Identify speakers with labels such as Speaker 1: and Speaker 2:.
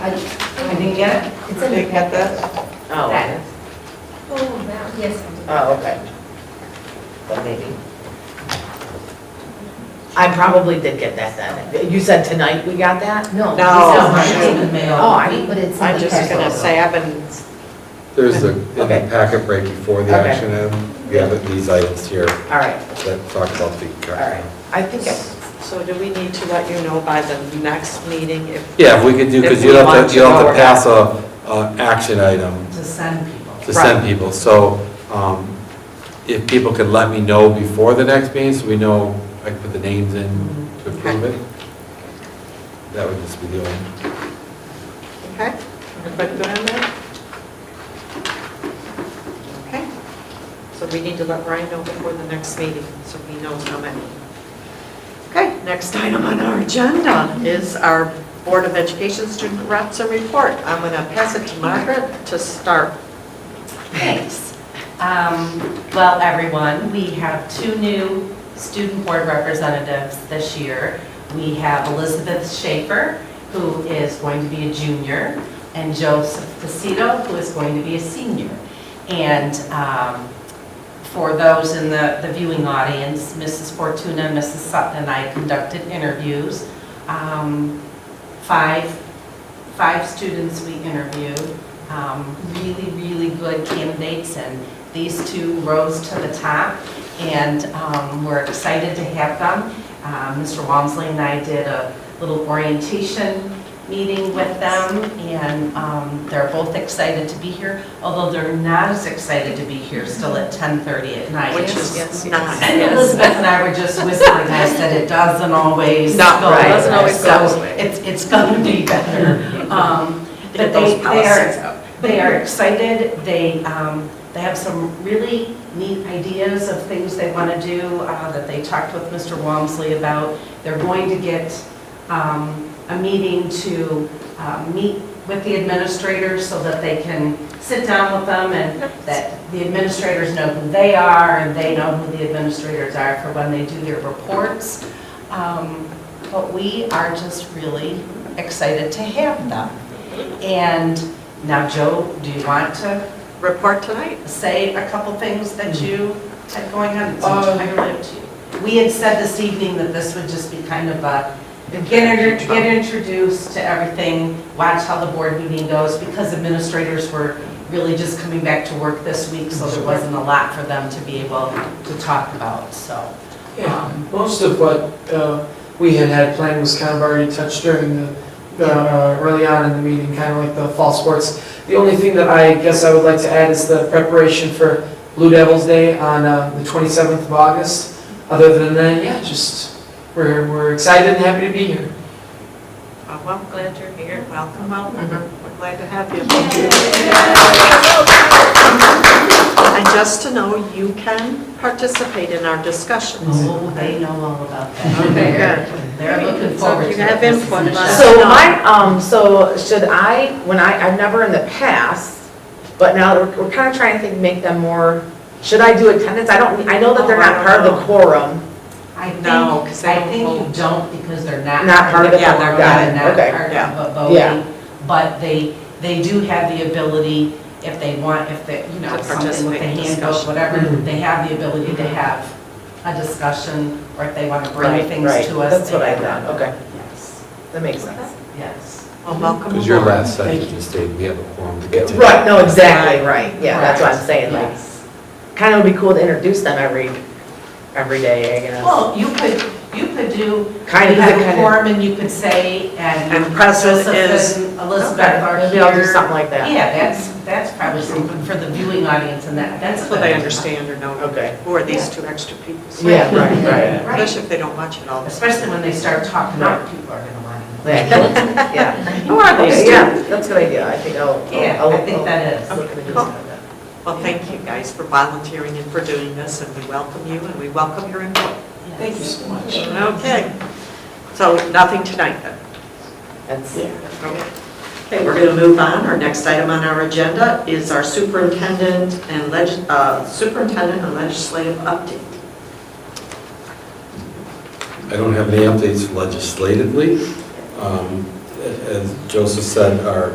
Speaker 1: I, I didn't get it.
Speaker 2: It's in the
Speaker 3: Did you get that? Oh,
Speaker 1: That.
Speaker 3: yes.
Speaker 2: Oh, that, yes.
Speaker 3: oh, okay. So maybe.
Speaker 4: I probably did get that then. You said tonight we got that?
Speaker 2: No.
Speaker 3: No.
Speaker 2: this is not in the mail.
Speaker 4: Oh, I-
Speaker 2: But it's
Speaker 3: I'm
Speaker 2: in the
Speaker 3: just gonna
Speaker 2: packet.
Speaker 3: say, I've been,
Speaker 5: There's the, in
Speaker 4: Okay.
Speaker 5: the packet right before the
Speaker 4: Okay.
Speaker 5: action item, we have these items here
Speaker 4: All right,
Speaker 5: that talk about the.
Speaker 4: all right. I think, I-
Speaker 3: so do we need to let you know by the next meeting if?
Speaker 5: Yeah, if we could do,
Speaker 3: If
Speaker 5: because
Speaker 3: we
Speaker 5: you don't
Speaker 3: want
Speaker 5: have
Speaker 3: to
Speaker 5: to, you don't have
Speaker 3: know
Speaker 5: to pass a, a action item
Speaker 1: To send people.
Speaker 5: to send people. So um, if people could let me know before the next meeting, so we know, I can put the names in
Speaker 4: Mm-hmm.
Speaker 5: to approve it, that would just be the only.
Speaker 3: Okay, everybody good on that? Okay, so we need to let Ryan know before the next meeting, so he knows how many. Okay, next item on our agenda is our Board of Education Student Reps and Report. I'm going to pass it to Margaret to start.
Speaker 6: Thanks. Um, Well, everyone, we have two new student board representatives this year. We have Elizabeth Schaefer, who is going to be a junior, and Joseph Pacito, who is going to be a senior. And um, for those in the the viewing audience, Mrs. Fortuna, Mrs. Sutton, and I conducted interviews. Um, Five, five students we interviewed um, really, really good candidates, and these two rose to the top, and um, we're excited to have them. Uh, Mr. Walmsley and I did a little orientation meeting with them, and um, they're both excited to be here, although they're not as excited to be here still at 10:30 at night.
Speaker 3: Which is nine.
Speaker 6: And Elizabeth and I were just whispering, I said, it doesn't always go
Speaker 3: No,
Speaker 6: this
Speaker 3: right,
Speaker 6: way.
Speaker 3: doesn't always go this
Speaker 6: So
Speaker 3: way.
Speaker 6: It's, it's going to be better. Um, But
Speaker 3: Get
Speaker 6: they,
Speaker 3: those
Speaker 6: they
Speaker 3: policies
Speaker 6: are,
Speaker 3: out.
Speaker 6: they are excited, they, um, they have some really neat ideas of things they want to do uh, that they talked with Mr. Walmsley about. They're going to get um, a meeting to uh, meet with the administrators so that they can sit down with them and that the administrators know who they are and they know who the administrators are for when they do their reports. Um, But we are just really excited to have them. And now, Joe, do you want to
Speaker 3: Report tonight?
Speaker 6: say a couple things that you had going on? It's entirely up to you. We had said this evening that this would just be kind of a, get inter- get introduced to everything, watch how the board meeting goes, because administrators were really just coming back to work this week, so there wasn't a lot for them to be able to talk about, so.
Speaker 7: Yeah,
Speaker 6: um,
Speaker 7: most of what uh, we had had planned was kind of already touched during the- the, uh, early on in the meeting, kind of like the fall sports. The only thing that I guess I would like to add is the preparation for Blue Devils Day on uh, the 27th of August. Other than that, yeah, just, we're we're excited and happy to be here.
Speaker 3: Oh, Well, glad you're here, welcome, welcome, Mm-hmm. we're glad to have you. And just to know, you can participate in our discussions.
Speaker 6: Oh, they know all about that.
Speaker 3: Mm-hmm. Okay,
Speaker 6: They're
Speaker 3: So
Speaker 6: looking forward
Speaker 3: if
Speaker 6: to it.
Speaker 3: you have
Speaker 6: This is
Speaker 3: input,
Speaker 6: Michelle.
Speaker 3: let us
Speaker 4: so
Speaker 3: know.
Speaker 4: my, um, so should I, when I, I've never in the past, but now we're- we're kind of trying to think, make them more, should I do attendance? I don't, I know that they're not part of the quorum.
Speaker 6: I think,
Speaker 3: No, 'cause they
Speaker 6: I
Speaker 3: don't
Speaker 6: think you
Speaker 3: vote.
Speaker 6: don't because they're not.
Speaker 4: Not part of the
Speaker 6: Yeah,
Speaker 4: vote,
Speaker 6: they're
Speaker 4: got it,
Speaker 6: not
Speaker 4: okay,
Speaker 6: part
Speaker 3: yeah,
Speaker 6: of the
Speaker 4: yeah.
Speaker 6: voting, but they, they do have the ability, if they want, if they, you know,
Speaker 3: To
Speaker 6: something with
Speaker 3: participate
Speaker 6: the
Speaker 3: in
Speaker 6: handbook,
Speaker 3: discussion.
Speaker 6: whatever,
Speaker 4: Mm-hmm.
Speaker 6: they have the ability to have a discussion, or if they want to bring
Speaker 4: Right,
Speaker 6: things
Speaker 4: right.
Speaker 6: to us. uh,
Speaker 4: That's
Speaker 6: they
Speaker 4: what I
Speaker 6: can.
Speaker 4: thought, okay,
Speaker 6: Yes,
Speaker 4: that makes sense.
Speaker 6: yes.
Speaker 3: Well, welcome
Speaker 5: Because your
Speaker 3: aboard.
Speaker 5: last sentence just stated we have a quorum to get to.
Speaker 4: Right, no, exactly, right, yeah, that's what I'm
Speaker 6: Right,
Speaker 4: saying, like,
Speaker 6: yes.
Speaker 4: kind of would be cool to introduce them every, every day, I guess.
Speaker 6: Well, you could, you could do,
Speaker 4: Kind
Speaker 6: we
Speaker 4: of,
Speaker 6: have a
Speaker 4: kind of-
Speaker 6: forum and you could say, and.
Speaker 3: And present
Speaker 6: Joseph
Speaker 3: is-
Speaker 6: and Elizabeth are
Speaker 4: Maybe I'll do
Speaker 6: here.
Speaker 4: something like that.
Speaker 6: Yeah, that's, that's probably something for the viewing audience and that, that's.
Speaker 3: So they understand or know,
Speaker 4: Okay.
Speaker 3: who are these two extra people?
Speaker 4: Yeah, right,
Speaker 6: Right,
Speaker 3: Especially if they don't watch it all.
Speaker 6: especially when they start talking about it, people are gonna want to.
Speaker 4: right. Yeah. Oh,
Speaker 3: Who are these
Speaker 4: Okay,
Speaker 3: two?
Speaker 4: yeah, that's a good idea, I think I'll. I'll-
Speaker 6: Yeah, I
Speaker 4: I'll-
Speaker 6: think that is.
Speaker 4: I'll look at the-
Speaker 3: Cool. Well, thank you guys for volunteering and for doing this, and we welcome you, and we welcome your input.
Speaker 6: Thank you.
Speaker 3: Okay. So nothing tonight, then?
Speaker 4: That's,
Speaker 3: Okay, we're going to move on. Our next item on our agenda is our superintendent and leg- uh, superintendent and legislative update.
Speaker 5: I don't have any updates legislatively. Um, as Joseph said, our